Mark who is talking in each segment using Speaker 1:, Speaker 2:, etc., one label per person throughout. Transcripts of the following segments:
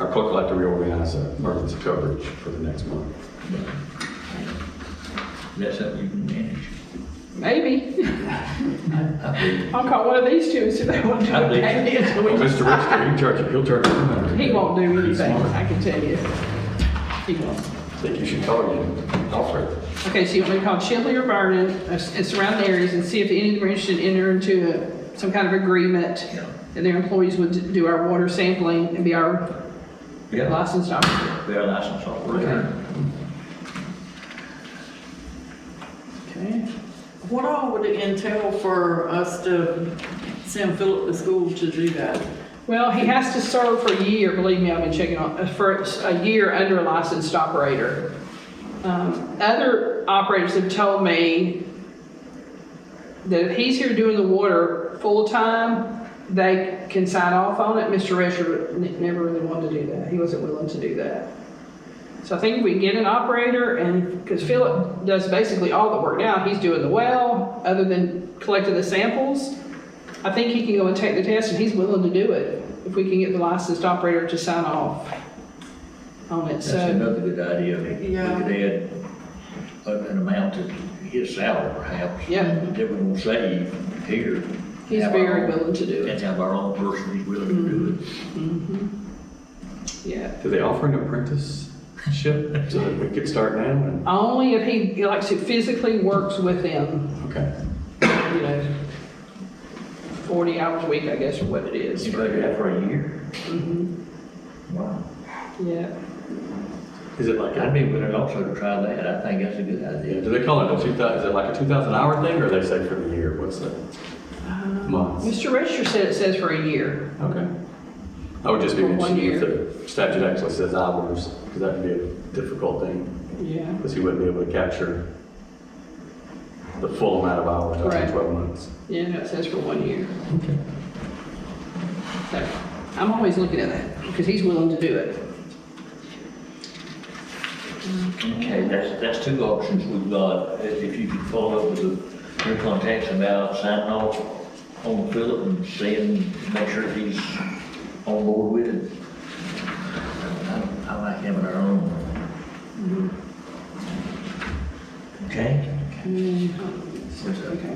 Speaker 1: our clerk will have to reorganize our emergency coverage for the next month.
Speaker 2: That's something you can manage.
Speaker 3: Maybe.
Speaker 2: I
Speaker 3: I'll call one of these two and see if they want to do
Speaker 2: I believe-
Speaker 3: it. So we
Speaker 1: Well,
Speaker 3: can-
Speaker 1: Mr. Richter, he charge, he'll charge. you $100.
Speaker 3: He won't do
Speaker 1: He's
Speaker 3: anything,
Speaker 1: smart.
Speaker 3: I can tell you. He won't.
Speaker 1: I think you should call him, Alfred.
Speaker 3: Okay, so you want me to call Chipley or Vernon uh, and surrounding areas and see if any of them are interested in entering into a- some kind of agreement?
Speaker 2: Yeah.
Speaker 3: And their employees would do our water sampling and be our
Speaker 2: believe. Yeah,
Speaker 3: licensed operator.
Speaker 2: we are licensed operator.
Speaker 3: Okay.
Speaker 4: What all would it entail for us to send Philip to school to do that?
Speaker 3: Well, he has to serve for a year, believe me, I've been checking on, uh, for a year under a licensed operator. Um, Other operators have told me that if he's here doing the water full-time, they can sign off on it. Mr. Rescher n- never really wanted to do that, he wasn't willing to do that. So I think we get an operator and, because Philip does basically all the work now, he's doing the well, other than collecting the samples. I think he can go and take the test and he's willing to do it if we can get the licensed operator to sign off on it,
Speaker 2: That's
Speaker 3: so.
Speaker 2: another good idea. We could
Speaker 4: Yeah.
Speaker 2: add a- an amount to his salary perhaps.
Speaker 3: Yeah.
Speaker 2: That we will save here.
Speaker 3: He's
Speaker 2: Have our
Speaker 3: very
Speaker 2: own-
Speaker 3: willing to do it,
Speaker 2: And have our own person who's willing to do it.
Speaker 3: Mm-hmm. yeah.
Speaker 1: Do they offer an apprenticeship so that we could start now? and-
Speaker 3: Only if he likes to physically works with them,
Speaker 1: Okay.
Speaker 3: you know, 40 hours a week, I guess, or what it is.
Speaker 2: You better do that for a year.
Speaker 3: Mhm.
Speaker 2: Wow.
Speaker 3: Yeah,
Speaker 1: Is it like,
Speaker 2: I'd
Speaker 1: a-
Speaker 2: be willing also to try that. I think that's a good
Speaker 1: yeah,
Speaker 2: idea.
Speaker 1: do they call it a two thousand, is it like a two thousand hour thing or they say for the year? What's that? Months?
Speaker 3: Mr. Register Um, said it says for a year.
Speaker 1: Okay. I would just be
Speaker 3: For one
Speaker 1: interested if the statute actually says hours, because that would be a difficult thing,
Speaker 3: Yeah.
Speaker 1: because he wouldn't be able to capture the full amount of hours within
Speaker 3: Right.
Speaker 1: twelve months.
Speaker 3: Yeah, no, it says for one year. So, I'm always looking at that, because he's willing to do it.
Speaker 2: Okay, that's, that's two options we've got. If if you could follow up with the, your contacts about signing off on Philip and seeing, make sure he's on board with it. I- I like having our own.
Speaker 3: Mm-hmm.
Speaker 2: Okay?
Speaker 3: Um, Okay.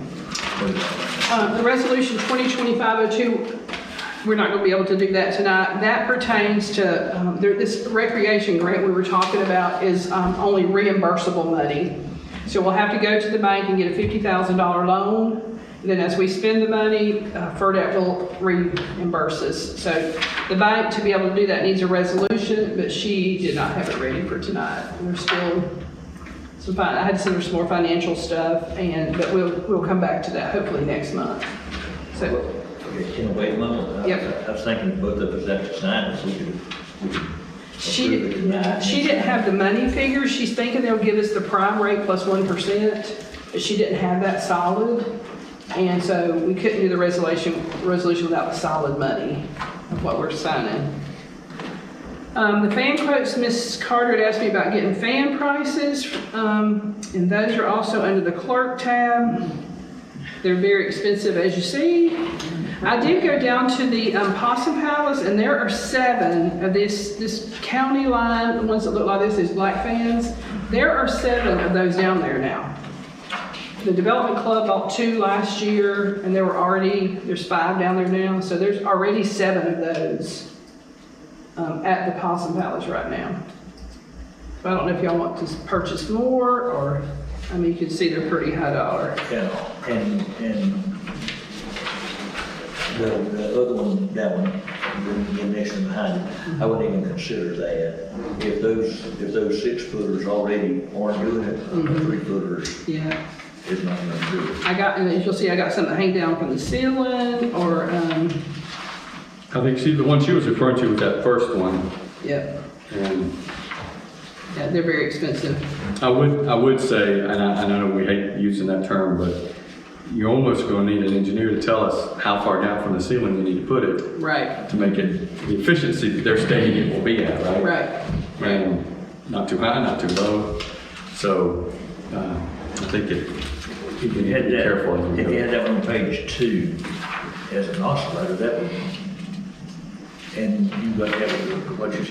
Speaker 3: Uh, The resolution 2025-02, we're not going to be able to do that tonight. That pertains to, um, there- this recreation grant we were talking about is um, only reimbursable money. So we'll have to go to the bank and get a $50,000 loan. Then as we spend the money, uh, FERDAP will reimburse us. So the bank, to be able to do that, needs a resolution, but she did not have it ready for tonight. We're still some fin, I had to send her some more financial stuff and, but we'll, we'll come back to that hopefully next month. So,
Speaker 2: Okay, can we wait a moment? I-
Speaker 3: Yep.
Speaker 2: I was thinking both of us have to sign it, so we could. we could
Speaker 3: she,
Speaker 2: approve it tonight.
Speaker 3: didn't- she didn't have the money figure, she's thinking they'll give us the prime rate plus one percent, but she didn't have that solid. And so we couldn't do the resolution, resolution without the solid money of what we're signing. Um, the fan quotes, Ms. Carter had asked me about getting fan prices, um, and those are also under the clerk tab. They're very expensive, as you see. I did go down to the um, Possum Palace, and there are seven of this, this county line, the ones that look like this, these black fans. There are seven of those down there now. The Development Club bought two last year, and there were already, there's five down there now, so there's already seven of those um, at the Possum Palace right now. I don't know if y'all want to purchase more, or, I mean, you can see they're pretty high dollar.
Speaker 2: And, and, and the, the other one, that one, the, the next one behind it, I wouldn't even consider that. If those, if those six footers already aren't doing it, the three footers
Speaker 3: Yeah.
Speaker 2: is not gonna do it.
Speaker 3: I got, and as you'll see, I got something hanging down from the ceiling, or, um,
Speaker 1: I think she, the one she was referring to was that first one.
Speaker 3: yep,
Speaker 1: And
Speaker 3: yeah, they're very expensive.
Speaker 1: I would, I would say, and I, I know we hate using that term, but you're almost gonna need an engineer to tell us how far down from the ceiling you need to put it
Speaker 3: Right,
Speaker 1: to make it the efficiency that they're stating it will be at, right?
Speaker 3: right, right.
Speaker 1: And not too high, not too low. So, uh, I think it, you
Speaker 2: If you
Speaker 1: need to
Speaker 2: had
Speaker 1: be
Speaker 2: that-
Speaker 1: careful. as we
Speaker 2: If
Speaker 1: go.
Speaker 2: you had that on page two, as an oscillator, that would, and you got that, what you